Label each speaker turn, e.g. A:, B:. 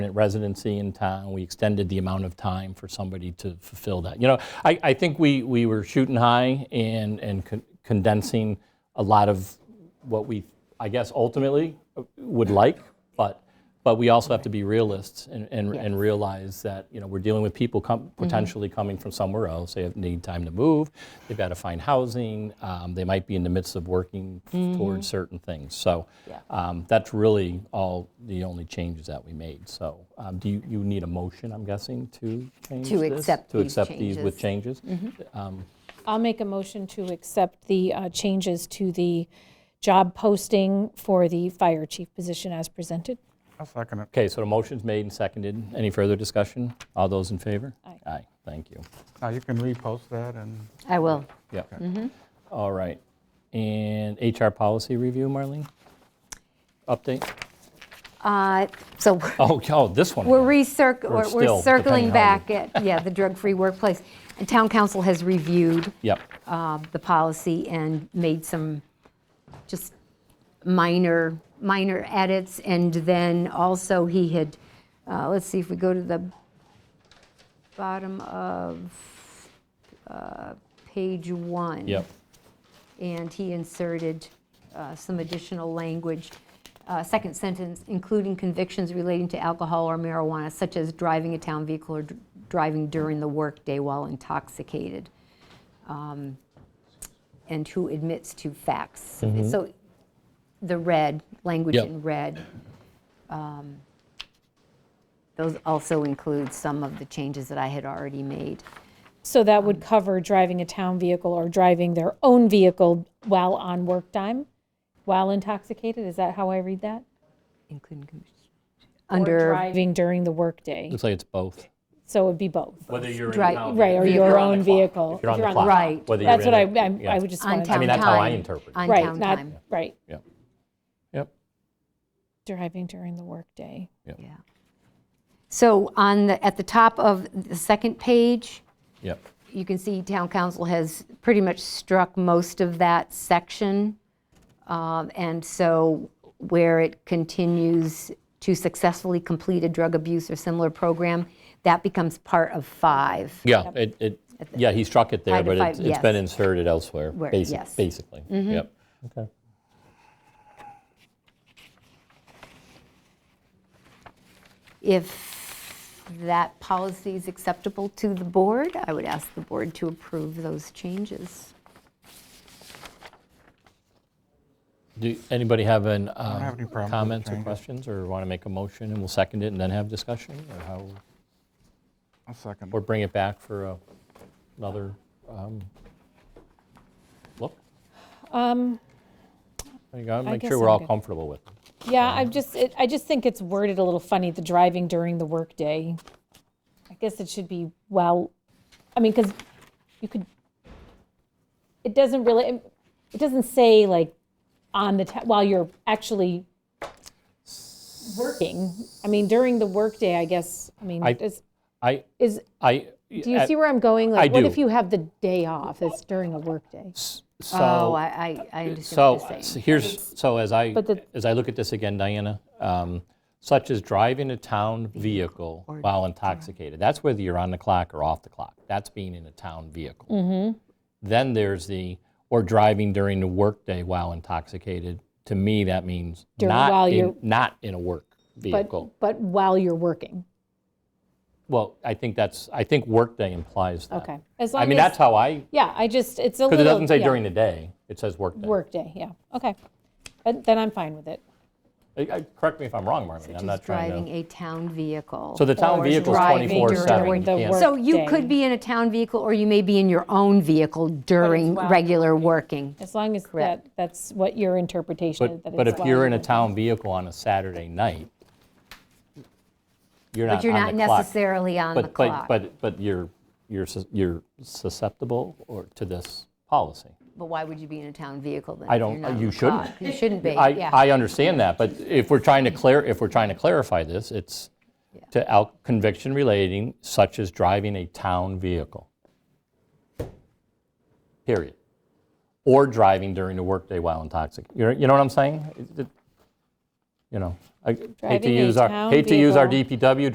A: permanent residency in town. We extended the amount of time for somebody to fulfill that. You know, I, I think we, we were shooting high and, and con- condensing a lot of what we, I guess, ultimately uh, would like, but, but we also have to be realists and, and, and realize that, you know, we're dealing with people com-
B: Mm-hmm.
A: potentially coming from somewhere else. They have, need time to move, they've got to find housing, um, they might be in the midst of working f- towards certain things. So
B: Mm-hmm. Yeah.
A: um, that's really all the only changes that we made. So um, do you, you need a motion, I'm guessing, to change
B: To
A: this?
B: accept
A: To
B: these Mm-hmm.
A: accept these with changes?
C: I'll make a motion to accept the uh, changes to the job posting for the fire chief position as presented.
D: I'll second it.
A: Okay, so the motion's made and seconded. Any further discussion? All those in favor?
C: Aye.
A: Aye, thank you.
D: Now, you can repost that and
B: I will.
A: Yep.
B: Mm-hmm.
A: All right. And HR policy review, Marlene? Update?
B: Uh, So we're-
A: Oh, oh, this one.
B: we're
A: again.
B: recirc,
A: Or
B: we're-
A: still,
B: we're
A: depending
B: circling
A: how
B: back at, yeah, the drug-free workplace. And town council has reviewed
A: Yep,
B: uh, the policy and made some just minor, minor edits. And then also he had, uh, let's see if we go to the bottom of uh, page one.
A: yep.
B: and he inserted uh, some additional language. Uh, Second sentence, including convictions relating to alcohol or marijuana, such as driving a town vehicle or dr- driving during the workday while intoxicated, um, and who admits to facts. So the red, language
A: Yep.
B: in red, um, those also include some of the changes that I had already made.
C: So that would cover driving a town vehicle or driving their own vehicle while on work time, while intoxicated? Is that how I read that?
B: Including convictions.
C: Or
B: Under
C: driving during the workday.
A: Looks like it's both.
C: So it would be both.
A: Whether you're
B: in Right, town
C: Right, or your
B: Vehicle.
C: own vehicle.
A: If you're on the clock.
B: Right.
A: whether you're
C: That's what I,
A: in it-
C: I'm-
A: yeah.
C: I would just
B: on town
C: want to.
B: time.
A: mean, that's how I interpret it.
B: On
C: Right,
B: town
C: not,
B: time,
C: right,
A: Yep, yep,
C: driving during the workday.
B: yeah. So on the, at the top of the second page,
A: yep.
B: you can see town council has pretty much struck most of that section. Um, And so where it continues to successfully complete a drug abuse or similar program, that becomes part of five.
A: Yeah, it, it, yeah, he struck it there,
B: Five to
A: but
B: five,
A: it's it's been
B: yes.
A: inserted elsewhere,
B: Where-
A: basi-
B: yes.
A: basically. Yep. Okay.
B: If that policy is acceptable to the board, I would ask the board to approve those changes.
A: Do anybody have an, um,
D: have any problem with the
A: comments or
D: changes.
A: questions, or want to make a motion, and we'll second it and then have discussion? Or how,
D: I'll second
A: or
D: it.
A: bring it back for a- another um, look?
C: Um,
A: There you go, make
C: guess
A: sure we're
C: I'm
A: all
C: good.
A: comfortable with it.
C: Yeah, I just, it- I just think it's worded a little funny, the driving during the workday. I guess it should be, well, I mean, because you could, it doesn't really, it doesn't say like on the, ta- while you're actually working. I mean, during the workday, I guess, I mean,
A: I-
C: is,
A: I,
C: is,
A: I.
C: do you see where I'm going?
A: I
C: Like, what
A: do.
C: if you have the day off, it's during a workday?
B: Oh,
A: So,
B: I, I I understand
A: so
B: what you're saying.
A: so here's, so as I,
C: But the-
A: as I look at this again, Diana, um, such as driving a town vehicle while intoxicated, that's whether you're on the clock or off the clock. That's being in a town vehicle.
C: Mm-hmm.
A: Then there's the, or driving during the workday while intoxicated. To me, that means
C: During-
A: not
C: while
A: in,
C: you're-
A: not in a work
C: But,
A: vehicle.
C: but while you're working,
A: Well, I think that's, I think workday implies that.
C: okay. As
A: I
C: long
A: mean,
C: as-
A: that's how I,
C: Yeah, I just, it's a little.
A: because it doesn't say
C: yeah.
A: during the day, it says workday.
C: Workday, yeah, okay. But Then I'm fine with it.
A: I- I- Correct me if I'm wrong, Marlene, I'm
B: Just
A: not trying to.
B: driving a town vehicle.
A: So the town
C: Or
A: vehicle's
B: driving during the
A: 24/7.
C: workday.
A: yeah.
C: So-
B: So you could be in a town vehicle, or you may be in your own vehicle during
C: while-
B: regular working.
C: As long as that,
B: Correct.
C: that's what your interpretation is.
A: But,
C: that
A: but
C: it's
A: if you're in a
C: allowed.
A: town vehicle on a Saturday night, you're
B: But
A: not
B: you're not
A: on the clock.
B: necessarily on the
A: But-
B: clock.
A: But, but, but you're, you're sus- you're susceptible or to this policy.
B: But why would you be in a town vehicle then?
A: I
B: if
A: don't-
B: you're not
A: you
B: on the
A: shouldn't.
B: clock? You shouldn't be,
A: I,
B: yeah.
A: I understand that, but if we're trying to clear, if we're trying to clarify this, it's to al- conviction relating such as driving a town vehicle. Period. Or driving during the workday while intoxicated. You know what I'm saying? It- it- You know, I hate to
C: Driving a
A: use our,
C: town
A: hate to use our
C: vehicle.
A: DPW